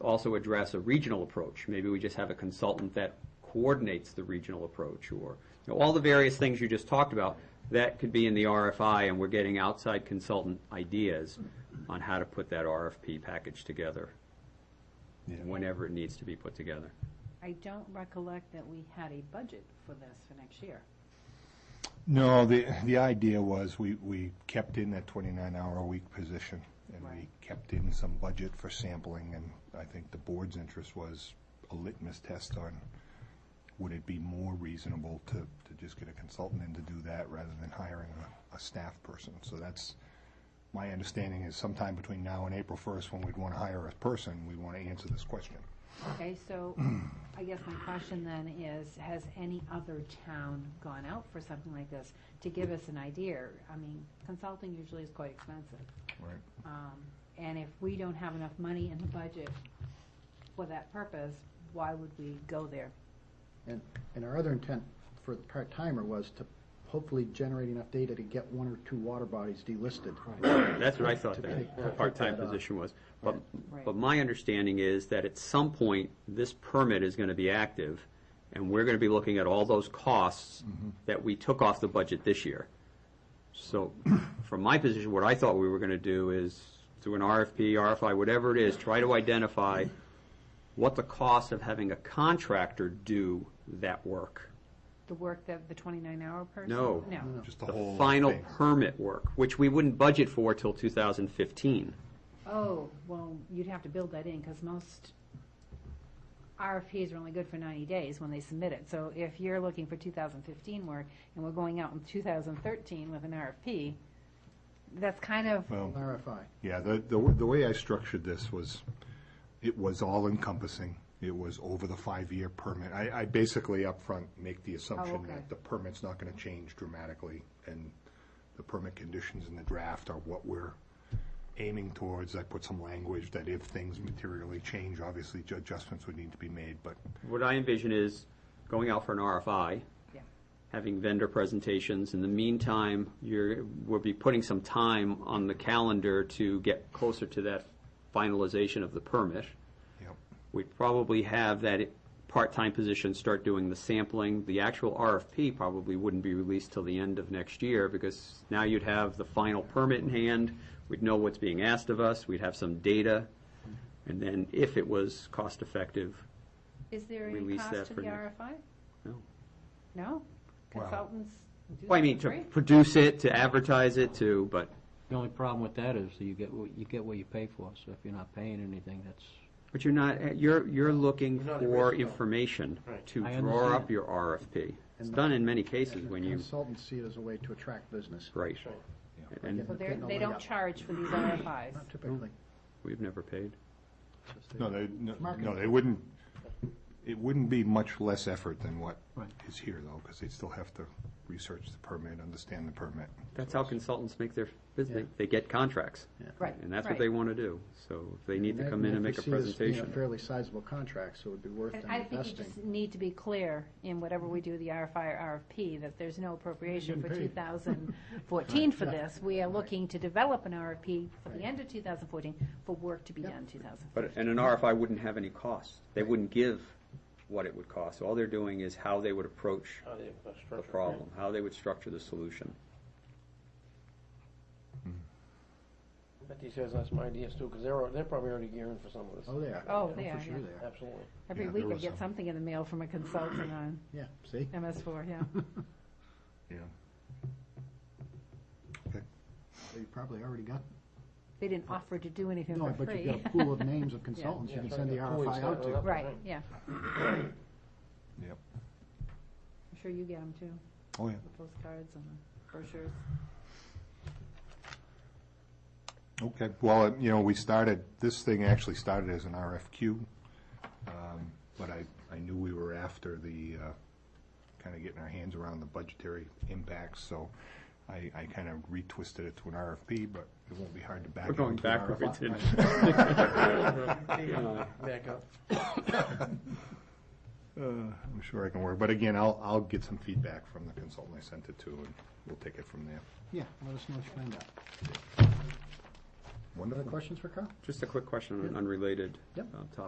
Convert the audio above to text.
also address a regional approach. Maybe we just have a consultant that coordinates the regional approach, or, you know, all the various things you just talked about, that could be in the RFI, and we're getting outside consultant ideas on how to put that RFP package together, whenever it needs to be put together. I don't recollect that we had a budget for this for next year. No, the, the idea was we, we kept in that twenty-nine hour a week position. And we Right. kept in some budget for sampling and I think the board's interest was a litmus test on would it be more reasonable to, to just get a consultant in to do that rather than hiring a, a staff person? So that's, my understanding is sometime between now and April first, when we'd want to hire a person, we want to answer this question. Okay, so I guess my question then is, has any other town gone out for something like this to give us an idea? I mean, consulting usually is quite expensive. Right. Um, And if we don't have enough money in the budget for that purpose, why would we go there? And, and our other intent for the part-timer was to hopefully generate enough data to get one or two water bodies delisted. That's what I thought To that pick- to pick part-time that uh, up. position was. But, Right. but my understanding is that at some point, this permit is going to be active, and we're going to be looking at all those costs Mm-hmm. that we took off the budget this year. So from my position, what I thought we were going to do is, through an RFP, RFI, whatever it is, try to identify what the cost of having a contractor do that work. The work that, the 29-hour person? No. No. Just the The whole final thing. permit work, which we wouldn't budget for till 2015. Oh, well, you'd have to build that in, because most RFPs are only good for 90 days when they submit it. So if you're looking for 2015 work, and we're going out in 2013 with an RFP, that's kind of, Well, RFI. Yeah, the, the, w- the way I structured this was, it was all encompassing. It was over the five-year permit. I, I basically upfront make the assumption okay. that the permit's not gonna change dramatically, and the permit conditions in the draft are what we're aiming towards. I put some language that if things materially change, obviously ju- adjustments would need to be made, but What I envision is going out for an RFI, yeah. having vendor presentations. In the meantime, you're, we'll be putting some time on the calendar to get closer to that finalization of the permit. you know, We'd probably have that part-time position start doing the sampling. The actual RFP probably wouldn't be released till the end of next year because now you'd have the final permit in hand. We'd know what's being asked of us. We'd have some data. And then if it was cost-effective, Is there any Release that cost to for the next- RFI? no. No? Well- Consultants do Well, I that mean, for to free? produce it, to advertise it, to, but, The only problem with that is that you get, what- you get what you pay for, so if you're not paying anything, that's, but you're not, you're, you're looking We're not for original. information Right. to I draw up understand. your RFP. It's And- done in many cases when you, Consultants see it as a way to attract business. right. And So they're- Getting a they leg don't up. charge for these RFIs? Not typically. we've never paid. Just a- no, they, no- no, Marketing. they wouldn't, it wouldn't be much less effort than what Right. is here, though, because they'd still have to research the permit, understand the permit. That's how consultants make their, business. Yeah. they get contracts. Yeah. Right, And that's what right. they want to do. So if they need to And come in and they make a see this being presentation. Fairly sizable contract, so it'd be worth And them I think you investing. just need to be clear in whatever we do, the RFI or RFP, that there's no appropriation for 2014 for this. We are looking to develop an RFP for the end of 2014 for work to be done in 2000. But, and an RFI wouldn't have any cost. They wouldn't give what it would cost. All they're doing is how they would approach How they uh, the structure it. problem, how they would structure the solution. Bet these guys have some ideas too, because they're, al- they're probably already gearing for some of this. Oh, they are. Oh, Yeah, they are, For sure yeah. they are. Absolutely. Every Yeah, week there I was get some. something in the mail from a consultant on Yeah, see? MS4, yeah. Yeah. They probably already got, They didn't offer to do anything no, for but you've got free. a pool of names of consultants you Yeah, can so send the got two weeks RFI out started to. up, Right, yeah. Yep. I'm sure you get them too, Oh, yeah. the postcards and the brochures. Okay, well, uh, you know, we started, this thing actually started as an RFQ, um, but I, I knew we were after the, kind of getting our hands around the budgetary impacts, so I, I kind of retwisted it to an RFP, but it won't be hard to back We're it going into an backwards. RFI. Back up. Uh, I'm sure I can work, but again, I'll, I'll get some feedback from the consultant I sent it to, and we'll take it from there. Yeah, let us know what you find out. Other Wonderful. questions for Carl? Just a quick question on an unrelated Yep. uh, topic.